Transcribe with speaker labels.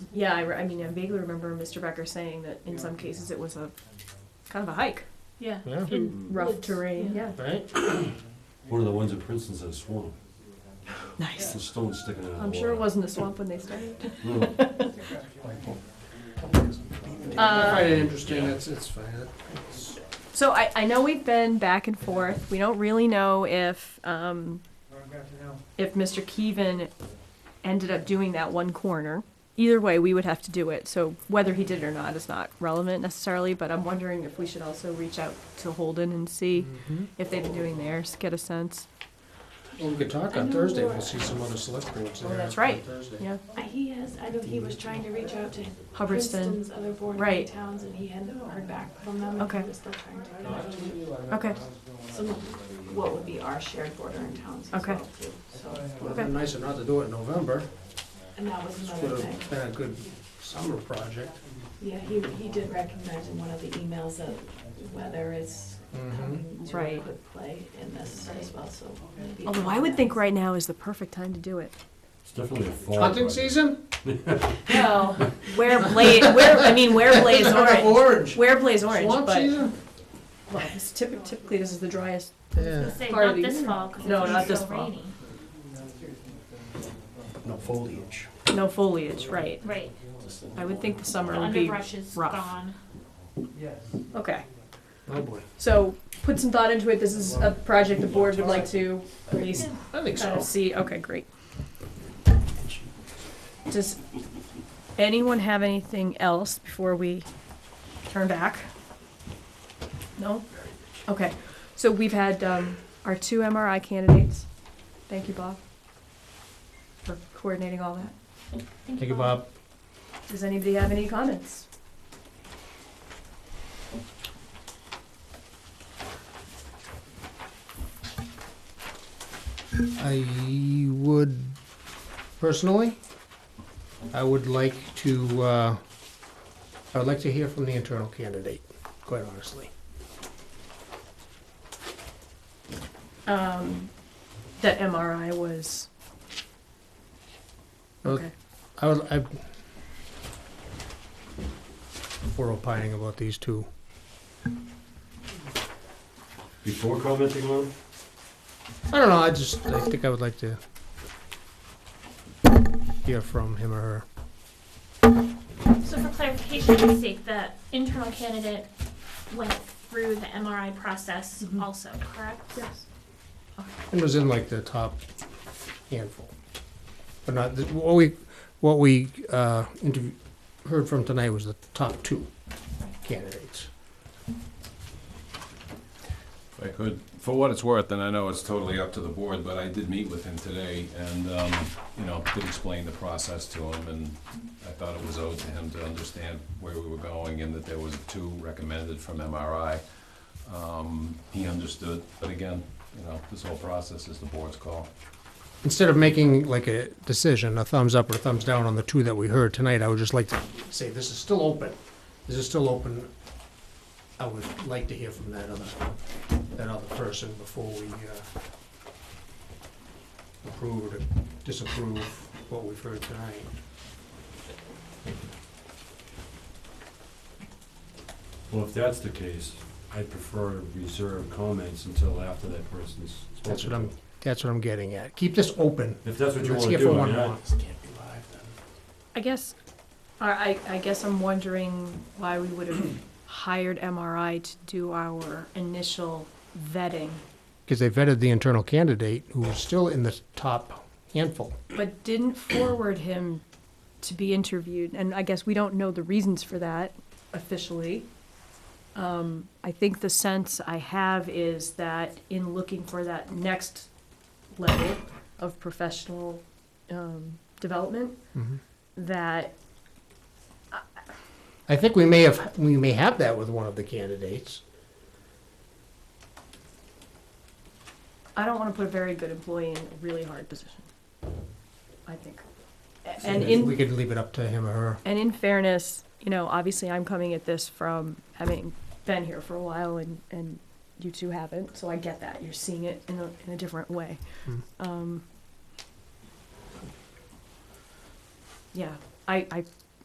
Speaker 1: Yeah, I, re- I mean, I vaguely remember Mr. Becker saying that in some cases it was a kind of a hike,
Speaker 2: Yeah.
Speaker 3: Yeah,
Speaker 1: in rough
Speaker 2: Woods,
Speaker 1: terrain. Mm. Yeah.
Speaker 3: right?
Speaker 4: One of the ones in Princeton's in a swamp,
Speaker 1: Nice.
Speaker 4: the stone sticking out of the water.
Speaker 1: I'm sure it wasn't a swamp when they started.
Speaker 4: No.
Speaker 3: I
Speaker 1: Uh,
Speaker 3: find it interesting, it's, it's fine.
Speaker 1: so I, I know we've been back and forth. We don't really know if um, if Mr. Keevan ended up doing that one corner. Either way, we would have to do it. So whether he did it or not is not relevant necessarily. But I'm wondering if we should also reach out to Holden and see
Speaker 3: Mm-hmm.
Speaker 1: if they've been doing theirs, get a sense.
Speaker 3: Well, we could talk on Thursday, we'll see some other select boards
Speaker 1: Oh,
Speaker 3: there.
Speaker 1: that's
Speaker 3: on
Speaker 1: right.
Speaker 3: Thursday.
Speaker 1: Yeah,
Speaker 2: I- He has, I know he was trying to reach out to
Speaker 1: Hubbardston.
Speaker 2: Princeton's other bordering
Speaker 1: Right.
Speaker 2: towns and he hadn't heard back from them. and
Speaker 1: Okay.
Speaker 2: He was still trying to get out to
Speaker 1: Okay.
Speaker 2: some of what would be our shared bordering towns as
Speaker 1: Okay.
Speaker 2: well too. So,
Speaker 3: Would've been nicer not to do it in November,
Speaker 2: and that was another thing.
Speaker 3: would've been a good summer project.
Speaker 2: Yeah, he, he did recognize in one of the emails that weather is
Speaker 3: Mm-hmm.
Speaker 2: coming to a
Speaker 1: Right.
Speaker 2: good play in this as well, so maybe.
Speaker 1: Although I would think right now is the perfect time to do it.
Speaker 4: It's definitely a fall.
Speaker 3: Hunting
Speaker 4: project.
Speaker 3: season?
Speaker 1: Well, wear blaze. Wear I mean, wear blaze
Speaker 3: Isn't that
Speaker 1: orange.
Speaker 3: Orange.
Speaker 1: Wear blaze orange,
Speaker 3: Swamp
Speaker 1: but
Speaker 3: season?
Speaker 1: well, this typ- typically this is the driest.
Speaker 3: Yeah.
Speaker 5: Say,
Speaker 1: Part of
Speaker 5: not
Speaker 1: the
Speaker 5: this
Speaker 1: year.
Speaker 5: fall, because
Speaker 1: No,
Speaker 5: it's
Speaker 1: not
Speaker 5: been
Speaker 1: this
Speaker 5: so
Speaker 1: fall.
Speaker 5: rainy.
Speaker 6: No foliage.
Speaker 1: No foliage, right?
Speaker 5: Right,
Speaker 1: I would think the
Speaker 5: the
Speaker 1: summer would be.
Speaker 5: underbrush is
Speaker 1: rough.
Speaker 5: gone.
Speaker 1: Okay,
Speaker 3: Oh, boy.
Speaker 1: so put some thought into it. This is a project the board would like to at least
Speaker 3: I think
Speaker 1: kind
Speaker 3: so.
Speaker 1: of see. Okay, great. Does anyone have anything else before we turn back? No? Okay, so we've had um, our two MRI candidates. Thank you, Bob, for coordinating all that.
Speaker 5: Thank you, Bob.
Speaker 1: Does anybody have any comments?
Speaker 3: I would, personally, I would like to, uh, I would like to hear from the internal candidate, quite honestly.
Speaker 1: Um, That MRI was,
Speaker 3: Well,
Speaker 1: okay,
Speaker 3: I was, I, we're opining about these two.
Speaker 4: Before commenting on it,
Speaker 3: I don't know, I just, I think I would like to hear from him or her.
Speaker 5: So for clarification's sake, the internal candidate went through the MRI process also, correct? Yes.
Speaker 3: It was in like the top handful. But not, the- what we, what we, uh, interview, heard from tonight was the top two candidates.
Speaker 7: If I could, for what it's worth, and I know it's totally up to the board, but I did meet with him today and, um, you know, did explain the process to him and I thought it was owed to him to understand where we were going and that there was two recommended from MRI. Um, He understood, but again, you know, this whole process is the board's call.
Speaker 3: Instead of making like a decision, a thumbs up or a thumbs down on the two that we heard tonight, I would just like to say, this is still open. This is still open. I would like to hear from that other, that other person before we, uh, approve or disapprove what we've heard tonight.
Speaker 4: well, if that's the case, I'd prefer to reserve comments until after that person's spoken.
Speaker 3: That's what I'm, that's what I'm getting at. Keep this open.
Speaker 4: If that's what you
Speaker 3: Let's
Speaker 4: wanna
Speaker 3: hear from
Speaker 4: do, I
Speaker 3: one
Speaker 4: mean, I-
Speaker 3: more.
Speaker 1: I guess, I, I I guess I'm wondering why we would have hired MRI to do our initial vetting.
Speaker 3: Because they vetted the internal candidate who was still in the top handful.
Speaker 1: but didn't forward him to be interviewed. And I guess we don't know the reasons for that officially. Um, I think the sense I have is that in looking for that next level of professional um, development, that
Speaker 3: I think we may have, we may have that with one of the candidates.
Speaker 1: I don't want to put a very good employee in a really hard position. I think. A- And in
Speaker 3: We could leave it up to him or her.
Speaker 1: And in fairness, you know, obviously I'm coming at this from having been here for a while and, and you two haven't, so I get that. You're seeing it in a, in a different way.
Speaker 3: Hmm.
Speaker 1: Um, yeah, I, I